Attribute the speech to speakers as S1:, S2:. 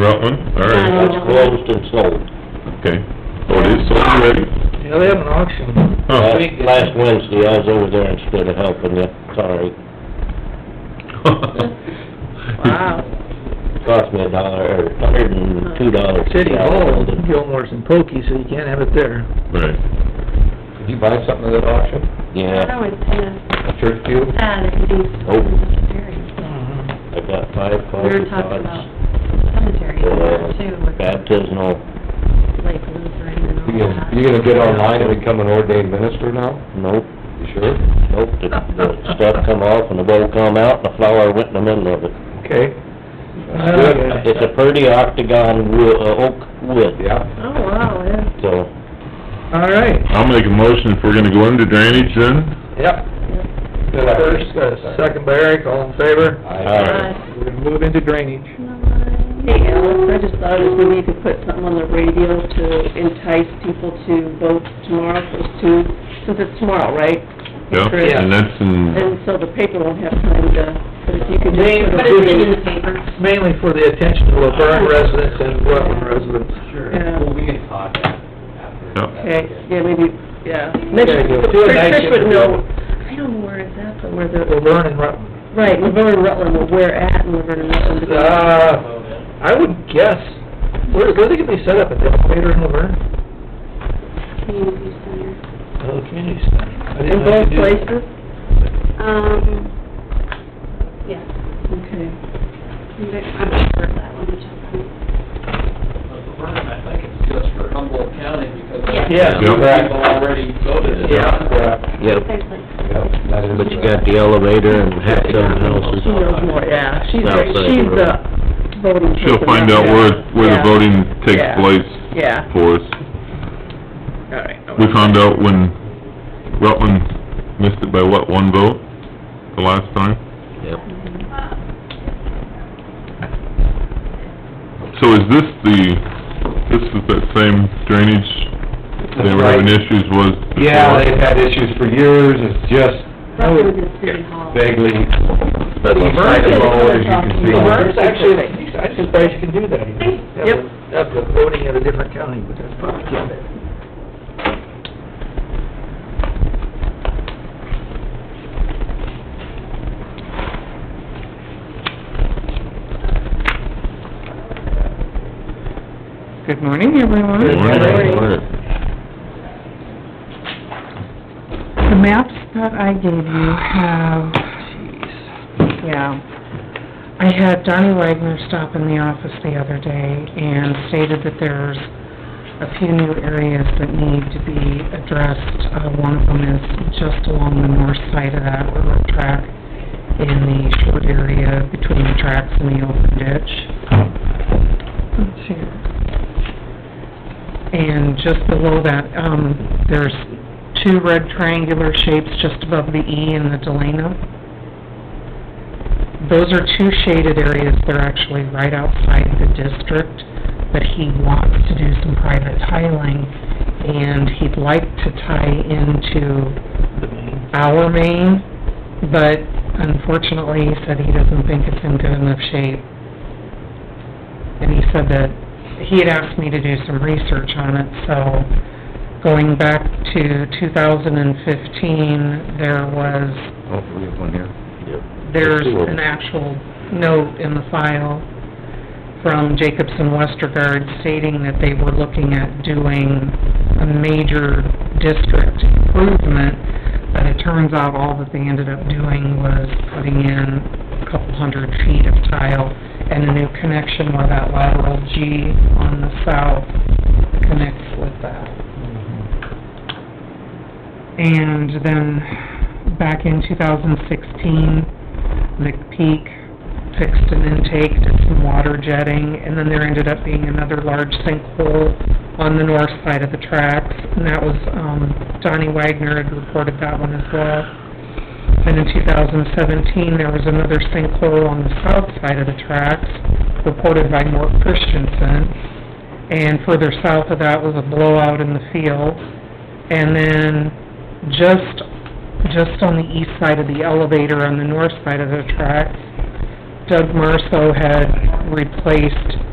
S1: Rutland, all right,
S2: It's closed and sold.
S1: okay. So it is sold already?
S3: Yeah, they have an auction.
S1: Huh.
S2: Last- Last Wednesday, I was over there instead of helping you, sorry.
S3: Wow.
S2: Cost me a dollar, or a hundred and two dollars.
S3: City Hall, Gilmore's and Pokey, so you can't have it there.
S1: Right.
S4: Did you buy something at that auction,
S5: That
S2: Yeah,
S5: always kind of
S4: a church pew?
S5: sad if you do
S2: Oh.
S5: cemeteries.
S2: I got
S5: We
S2: five coffee
S5: were talking about
S2: pots.
S5: cemeteries
S2: uh,
S5: too, with
S2: Baptismal,
S5: like Lutheran and
S4: You
S5: all
S4: gonna,
S5: that.
S4: you gonna get online and become an ordained minister now?
S2: nope,
S4: You sure?
S2: nope, the, the stuff come off and the bowl come out, and the flower went in the middle of it.
S4: Okay,
S3: Okay.
S2: It's a pretty octagon wo- uh, oak wood,
S4: yeah.
S5: Oh, wow, yeah.
S2: so,
S3: All right.
S1: I'll make a motion if we're gonna go into drainage then.
S3: Yep. Got a first, got a second by Eric, all in favor?
S1: Alright.
S5: Uh,
S3: We're gonna move into drainage.
S6: Hey, Alex, I just thought if we need to put something on the radio to entice people to vote tomorrow, those two, since it's tomorrow, right?
S1: Yep, and that's in,
S6: And so the paper won't have time to, but if you could just
S3: Name
S5: Put
S6: put it
S5: it in
S6: in.
S5: the paper.
S3: Mainly for the attention of Laverne residents and Rutland residents.
S7: Sure,
S6: Yeah.
S7: well, we can talk after.
S1: Yep.
S6: Okay, yeah, maybe, yeah. Mitch,
S3: Yeah, yeah. Do a night
S6: Trish would
S3: shift.
S6: know, I don't know where it's at, but where the,
S3: Laverne and Rutland.
S6: right, Laverne and Rutland, or where at in Laverne and Rutland.
S3: Uh, I would guess, where, where they could be set up, at the elevator in Laverne?
S5: Community center.
S3: Oh, the community center. I
S6: In
S3: didn't know
S6: both
S3: you could do that.
S6: places?
S5: Um, yeah,
S6: Okay.
S5: I'm not sure of that one, which
S4: Oh,
S5: I'm,
S7: But the burn, I think it's just for Humboldt County because
S3: Yeah.
S7: people already voted it.
S3: Yeah.
S2: yep.
S5: there's like,
S2: But you got the elevator and half dozen houses.
S6: She knows more, yeah, she's,
S2: South side.
S6: she's the voting person.
S1: she'll find out where, where the
S6: Yeah.
S1: voting takes
S6: Yeah.
S1: place
S6: Yeah,
S1: for us.
S6: all right.
S1: We found out when Rutland missed it by what, one vote, the last time?
S2: Yep.
S1: So is this the, this is that same drainage they were having issues was before?
S4: Yeah, they've had issues for years, it's just oh,
S5: roughly the city hall.
S4: vaguely, east side of the road, as you can see.
S3: Laverne's actually, I'm surprised you can do that. Yep. Have the voting at a different county, but that's probably can't.
S8: Good morning, everyone.
S1: Good morning.
S8: The maps that I gave you have, jeez, yeah. I had Donnie Wagner stop in the office the other day and stated that there's a few new areas that need to be addressed. Uh, one of them is just along the north side of that railroad track in the short area between the tracks and the open ditch. Let's see. And just below that, um, there's two red triangular shapes just above the E and the Delano. Those are two shaded areas, they're actually right outside the district, but he wants to do some private tiling, and he'd like to tie into our main, but unfortunately, he said he doesn't think it's in good enough shape. And he said that, he had asked me to do some research on it, so going back to two thousand and fifteen, there was
S4: Oh, we have one here.
S8: there's an actual note in the file from Jacobson Westergaard stating that they were looking at doing a major district improvement, but it turns out all that they ended up doing was putting in a couple hundred feet of tile and a new connection where that lateral G on the south connects with that. And then, back in two thousand sixteen, McPeak fixed an intake, did some water jetting, and then there ended up being another large sinkhole on the north side of the tracks, and that was, um, Donnie Wagner had reported that one as well. And in two thousand seventeen, there was another sinkhole on the south side of the tracks, reported by Mort Christensen. And further south of that was a blowout in the field. And then just, just on the east side of the elevator, on the north side of the tracks, Doug Marso had replaced